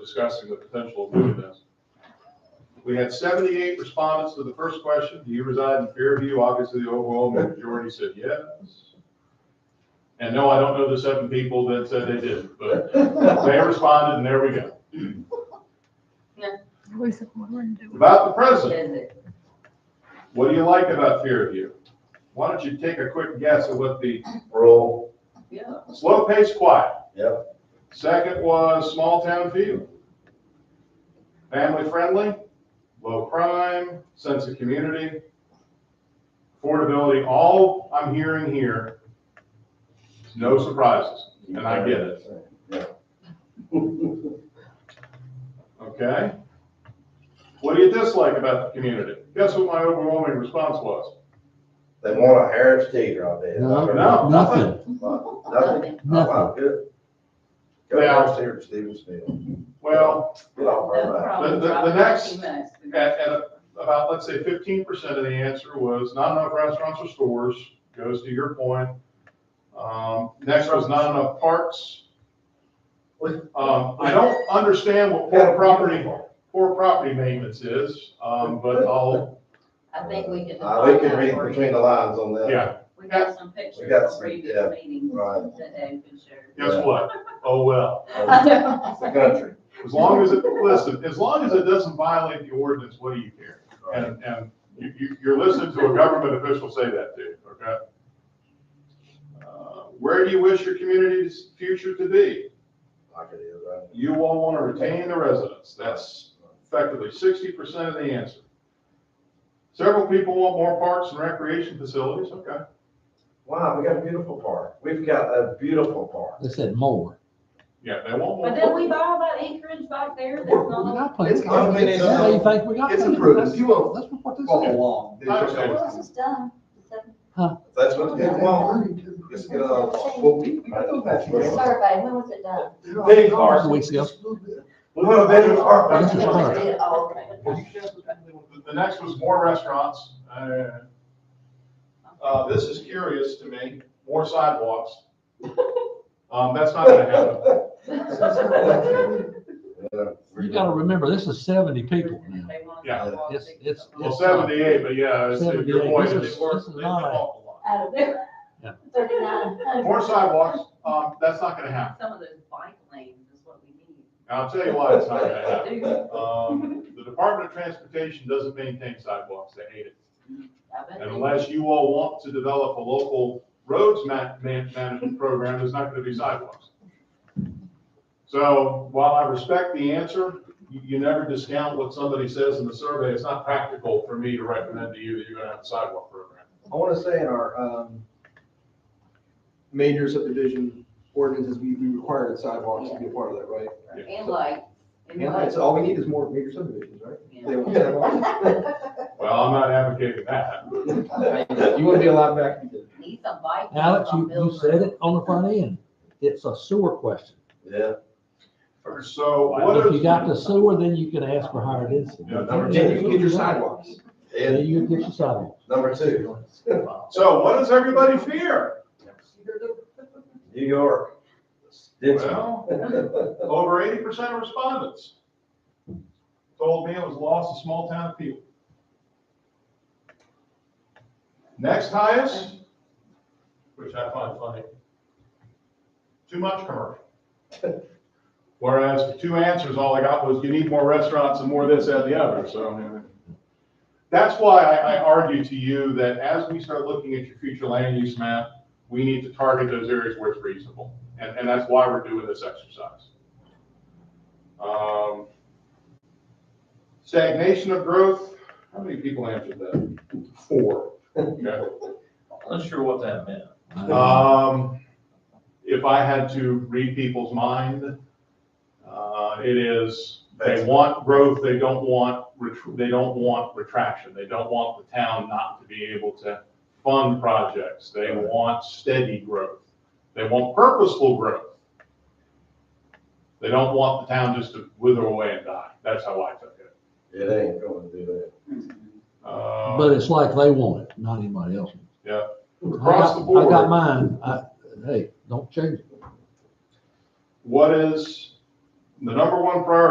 discussing the potential of doing this. We had seventy-eight respondents to the first question, do you reside in Fairview? Obviously, the overwhelming majority said yes. And no, I don't know the seven people that said they didn't, but they responded and there we go. About the president, what do you like about Fairview? Why don't you take a quick guess at what the Roll, Yeah. slow pace, quiet? yep, Second was small town feel. Family friendly, low crime, sense of community, affordability, all I'm hearing here is no surprises, and I get it, okay? What do you dislike about the community? Guess what my overwhelming response was? they want a Harris Teeter, I bet. No. No, nothing. Nothing, Nothing? Oh, wow, good. Go Yeah. Harris Teeter, Stevensville, Well, get off No our back. problem. The- the- the Drop next- 15 minutes. at, at about, let's say fifteen percent of the answer was not enough restaurants or stores, goes to your point. Um, next was not enough parks. Um, I don't understand what poor property, poor property maintenance is, um, but I'll, I think we can. Uh, we can define read that for between you. the lines on that. yeah, We got some pictures We got from some, previous yeah, meetings right. that Dave can share. guess what? Oh, well, Oh, It's the country. as long as it, listen, as long as it doesn't violate the ordinance, what do you care? And, and you, you, you're listening to a government official say that to you, okay? Uh, Where do you wish your community's future to be? Like it is, right? you all want to retain the residents. That's effectively sixty percent of the answer. Several people want more parks and recreation facilities, okay. Wow, we got a beautiful park, we've got a beautiful park. They said more. Yeah, they want But more. then we buy all that acreage back there that's We not. got plenty. It's gonna be- That's how you think we got It's plenty. improved. That's- You will- That's what this is. Follow along. Okay. Well, this is done. It's a- That's what, yeah, well, it's gonna, well, we, I don't The know. survey, when was it done? Big park, Couple weeks ago. we want a bigger park. That's the When park. we did it all. The- The next was more restaurants. Uh, uh, this is curious to me, more sidewalks. Um, that's not gonna happen. Yeah, we're You gotta remember, this is seventy people now. They want Yeah. to walk It's, six it's. Well, it's- seventy-eight, but yeah, it's- if 78, your point this is, is- they work- this is they not a- walk a lot. Out of Yeah. thirty-nine Uh, hundred. More sidewalks, um, that's not gonna happen. Some of those bike lanes is what we need. And I'll tell you why it's not gonna happen. They do. Um, the Department of Transportation doesn't maintain sidewalks, they hate it. I bet And they- Unless you all want to develop a local roads ma- man- management program, there's not gonna be sidewalks. So while I respect the answer, you, you never discount what somebody says in the survey, it's not practical for me to recommend to you that you're gonna have a sidewalk program. I want to say in our um, major subdivision ordinances, we we required sidewalks to be a part of that, right? And lights. and Yeah, lights, so all we need is more major subdivisions, right? yeah. They want sidewalks. Well, I'm not advocating that. You want to be allowed back to do it. Need some bike. lanes Alex, on you, you Mills said Road. it on the front end. It's a sewer question. Yeah, So what If you is, got the sewer, then you can ask for higher density. Yeah, number Then you can get your sidewalks. Then and you can get your sidewalk. number two, so what does everybody fear? New York. Denver. Well, Over eighty percent of respondents told me it was lost to small town people. Next highest, which I find funny, too much commercial. Whereas the two answers, all I got was you need more restaurants and more this, that, and the other, so. That's why I, I argue to you that as we start looking at your future land use map, we need to target those areas where it's reasonable. And, and that's why we're doing this exercise. Um, Stagnation of growth, how many people answered that? Four. Okay. Not sure what that meant. Um, if I had to read people's mind, uh, it is, they want growth, they don't want, ret- they don't want retraction. They don't want the town not to be able to fund projects. They want steady growth. They want purposeful growth. They don't want the town just to wither away and die. That's how I took it. It ain't going to do that. Hmm. Uh, But it's like they want it, not anybody else. Across the I got- I got board, mine. I, hey, don't change it. what is the number one priority